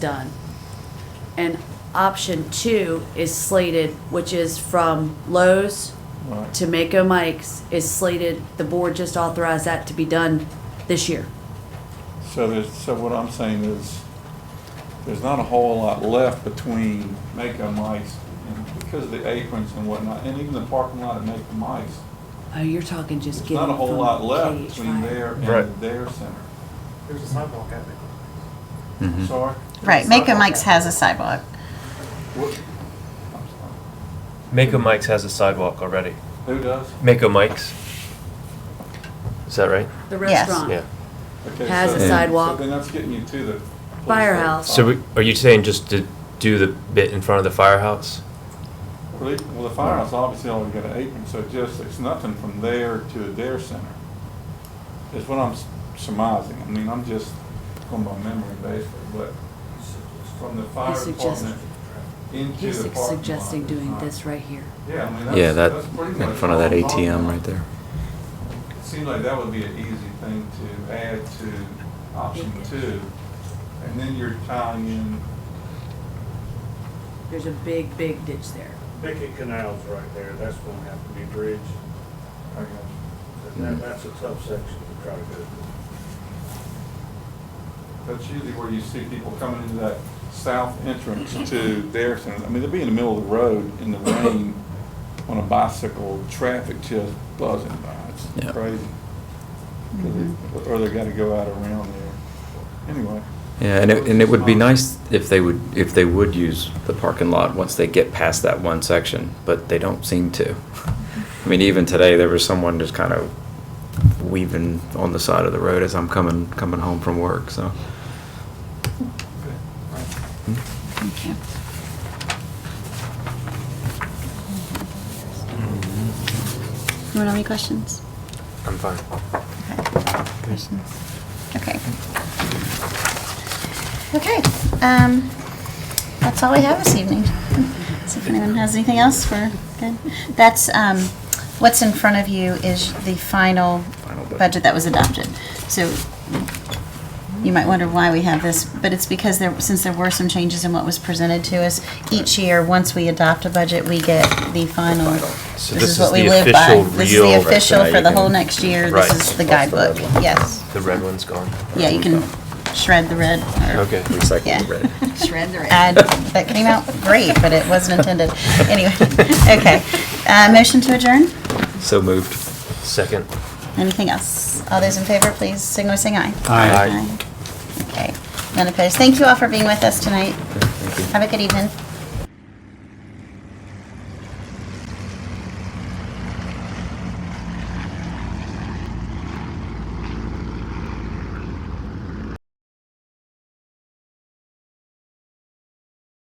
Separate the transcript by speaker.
Speaker 1: done. And option two is slated, which is from Lowe's
Speaker 2: Right.
Speaker 1: to Mako Mike's, is slated, the board just authorized that to be done this year.
Speaker 2: So there's, so what I'm saying is, there's not a whole lot left between Mako Mice and because of the aprons and whatnot, and even the parking lot at Mako Mice.
Speaker 1: Oh, you're talking just
Speaker 2: There's
Speaker 1: getting
Speaker 2: not
Speaker 1: from
Speaker 2: a whole lot left
Speaker 1: KH
Speaker 2: between
Speaker 1: Fire.
Speaker 2: there
Speaker 3: Right.
Speaker 2: and their center.
Speaker 4: There's a sidewalk at it.
Speaker 5: Mm-hmm.
Speaker 3: Mm-hmm.
Speaker 2: Sorry?
Speaker 6: Right, Mako Mike's has a sidewalk.
Speaker 2: What- I'm sorry.
Speaker 3: Mako Mike's has a sidewalk already.
Speaker 2: Who does?
Speaker 3: Mako Mike's. Is that right?
Speaker 1: The
Speaker 6: Yes.
Speaker 3: Yeah.
Speaker 1: restaurant.
Speaker 2: Okay,
Speaker 1: Has
Speaker 2: so
Speaker 1: a
Speaker 2: then-
Speaker 1: sidewalk.
Speaker 2: So then that's getting you to the. police
Speaker 1: Firehouse.
Speaker 3: So we, are you saying just to do the bit in front of the firehouse?
Speaker 2: Well, they- well, the firehouse obviously only got an apron, so just, it's nothing from there to their center. Is what I'm s- surmising. I mean, I'm just going by memory basically, but from the fire
Speaker 1: He's suggest-
Speaker 2: department into
Speaker 1: He's
Speaker 2: the parking lot.
Speaker 1: suggesting
Speaker 2: is
Speaker 1: doing
Speaker 2: not-
Speaker 1: this right here.
Speaker 2: Yeah, I mean,
Speaker 5: Yeah,
Speaker 2: that's,
Speaker 5: that,
Speaker 2: that's pretty much.
Speaker 5: in front of that
Speaker 2: all I'm talking
Speaker 5: ATM
Speaker 2: about.
Speaker 5: right there.
Speaker 2: It seemed like that would be an easy thing to add to option two. And then you're tying in,
Speaker 1: There's a big, big ditch there.
Speaker 4: Bickett Canal's right there, that's gonna have to be bridged,
Speaker 2: I guess,
Speaker 4: and that, that's a tough section to try to go through.
Speaker 2: that's usually where you see people coming into that south entrance to their center. I mean, they'll be in the middle of the road in the rain on a bicycle, traffic just buzzing by. It's
Speaker 5: Yeah.
Speaker 2: crazy. 'Cause they- Or they gotta go out around there. Anyway.
Speaker 5: Yeah, and it, and it would be nice if they would, if they would use the parking lot once they get past that one section, but they don't seem to. I mean, even today, there was someone just kind of weaving on the side of the road as I'm coming, coming home from work, so.
Speaker 6: Thank you. Anyone have any questions?
Speaker 3: I'm fine.
Speaker 6: Questions? Okay. Okay, um, that's all we have this evening. So if anyone has anything else, we're good. That's, um, what's in front of you is the final
Speaker 5: Final budget.
Speaker 6: budget that was adopted. So you might wonder why we have this, but it's because there, since there were some changes in what was presented to us, each year, once we adopt a budget, we get the final.
Speaker 3: So this
Speaker 6: This is
Speaker 3: is
Speaker 6: what we
Speaker 3: the
Speaker 6: live by.
Speaker 3: official
Speaker 6: This is the
Speaker 3: real-
Speaker 6: official
Speaker 5: Right, so now
Speaker 6: for
Speaker 5: you
Speaker 6: the whole
Speaker 5: can-
Speaker 6: next year.
Speaker 3: Right.
Speaker 6: This is the
Speaker 5: That's the red
Speaker 6: guidebook,
Speaker 5: one.
Speaker 6: yes.
Speaker 3: The red one's gone.
Speaker 6: Yeah, you can shred the red. or-
Speaker 3: Okay.
Speaker 6: Yeah.
Speaker 5: Recycle the red.
Speaker 6: Shred the red. Ad, that came out great, but it wasn't intended. Anyway, okay. Uh, motion to adjourn?
Speaker 5: So moved.
Speaker 3: Second.
Speaker 6: Anything else? All those in favor, please signal by saying aye.
Speaker 3: Aye.
Speaker 6: Okay, none opposed. Thank you all for being with us tonight.
Speaker 5: Thank you.
Speaker 6: Have a good evening.